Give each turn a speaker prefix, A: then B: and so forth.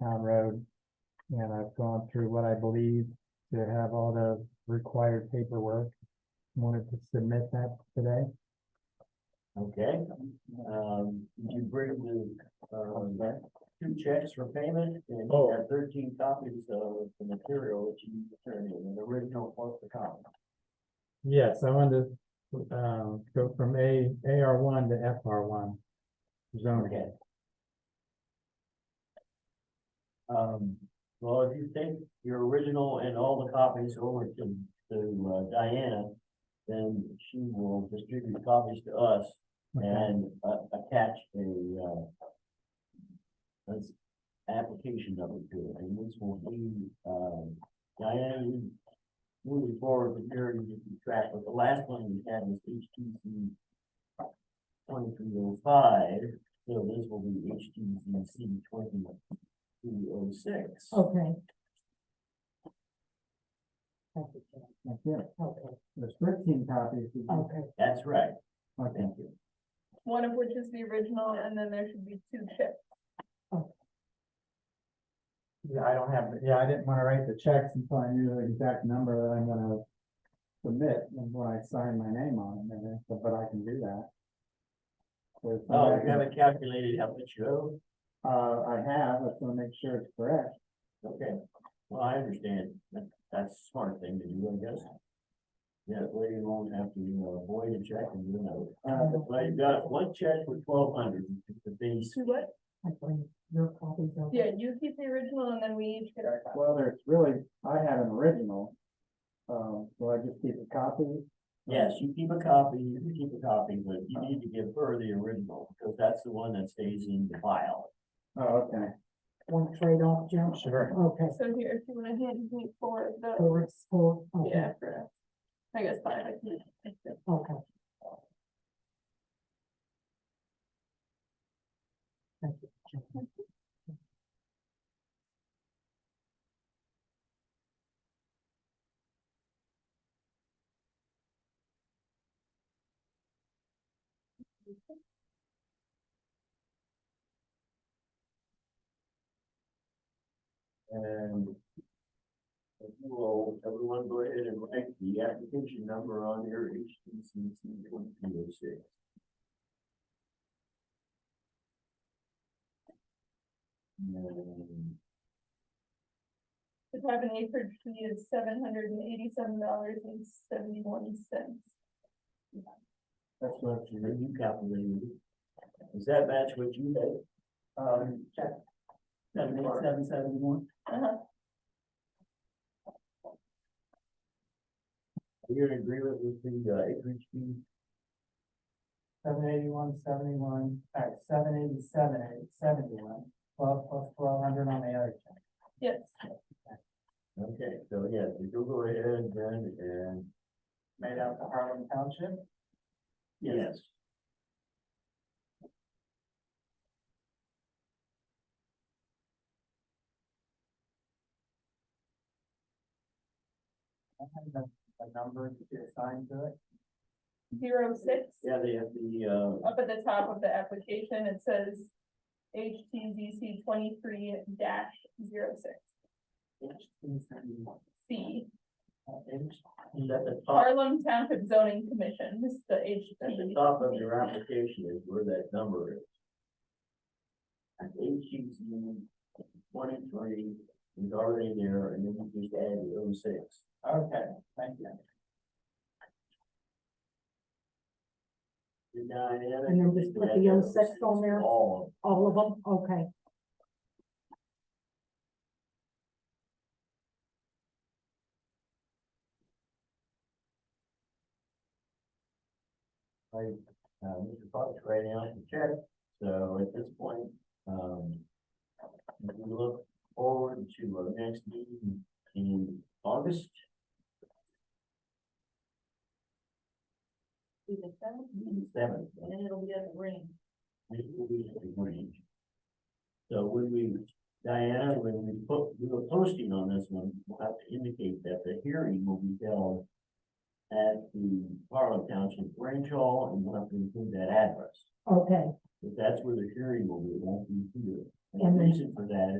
A: town road. And I've gone through what I believe to have all the required paperwork. Wanted to submit that today.
B: Okay, um, you bring the, uh, that two checks for payment and you
A: Oh.
B: have thirteen copies of the material that you turned in, the original plus the copy.
A: Yes, I wanted to, uh, go from A, AR one to FR one. Zoning.
B: Okay. Um, well, if you take your original and all the copies over to, to uh, Diana, then she will distribute copies to us
A: Okay.
B: and, uh, attach a, uh, this application of it to it, and this will be, um, Diana, you- moving forward, the period to keep track, but the last one we had was HTC twenty-three oh five, so this will be HTC twenty-three oh six.
C: Okay.
A: That's it. Oh.
C: Okay,
A: There's thirteen copies.
C: okay.
B: That's right,
A: Okay.
B: thank you.
D: one of which is the original, and then there should be two chips.
A: Yeah, I don't have, yeah, I didn't wanna write the checks until I knew the exact number that I'm gonna submit and when I sign my name on it, and I- but I can do that. So it's not
B: Oh,
A: like
B: you haven't calculated how much you owe?
A: I- Uh, I have, I just wanna make sure it's correct.
B: Okay, well, I understand, that, that's a smart thing to do, I guess. Yeah, that way you won't have to, you know, avoid a check and you know,
A: Uh,
B: but you got one check for twelve hundred, the base.
D: To what?
C: I bring your copies over.
D: Yeah, you keep the original, and then we each get our copy.
A: well, there's really, I have an original. Um, so I just keep a copy.
B: Yes, you keep a copy, you can keep a copy, but you need to give her the original, because that's the one that stays in the file.
A: Oh, okay.
C: One trade off, Jim?
A: Sure.
C: Okay,
D: So here, if you wanna hand me for the,
C: for it's for, okay,
D: yeah, for, I guess, fine, I can. I can-
C: okay. Thank you. Jim.
B: And if you will, everyone go ahead and write the application number on your HTC twenty-two oh six. And
D: The five and acreage fee is seven hundred and eighty-seven dollars and seventy-one cents.
A: That's what you
B: then you calculated. it. Does that match what you had? Um, check. Seven eight seven seventy-one?
D: Uh-huh,
B: Are you in agreement with the uh, acreage fee?
A: Seven eighty-one, seventy-one, all right, seven eighty-seven, eight seventy-one, twelve plus twelve hundred on the other check.
D: yes,
B: Okay, so yeah, you go go ahead then and.
A: made out to Harlem Township.
B: Yes.
A: I have a, a number to be assigned to it.
D: zero six.
B: Yeah, they have the uh,
D: Up at the top of the application, it says HTZC twenty-three dash zero six
B: uh.
D: C.
B: is at the top,
D: Harlem Township Zoning Commission, this is the
B: Uh. at the
D: HT.
B: top of your application is where that number is. And H E U Z twenty-three is already there and then you just add the oh six.
A: Okay, thank you.
B: And Diana,
C: And then just put the
B: you add
C: 06 on there?
B: All
C: All of them, okay.
B: of them. Right, uh, Mr. Fox right now is the check, so at this point, um. if We look forward to our next meeting in August. Seventh.
D: And it'll be at the ring.
B: This will be the range. So when we, Diana, when we put, we were posting on this one, we'll have to indicate that the hearing will be held at the Harlow Township Branch Hall, and we'll have to include that address.
C: Okay.
B: If that's where the hearing will be, it won't be here.
C: And
B: And the
C: then-
B: reason for that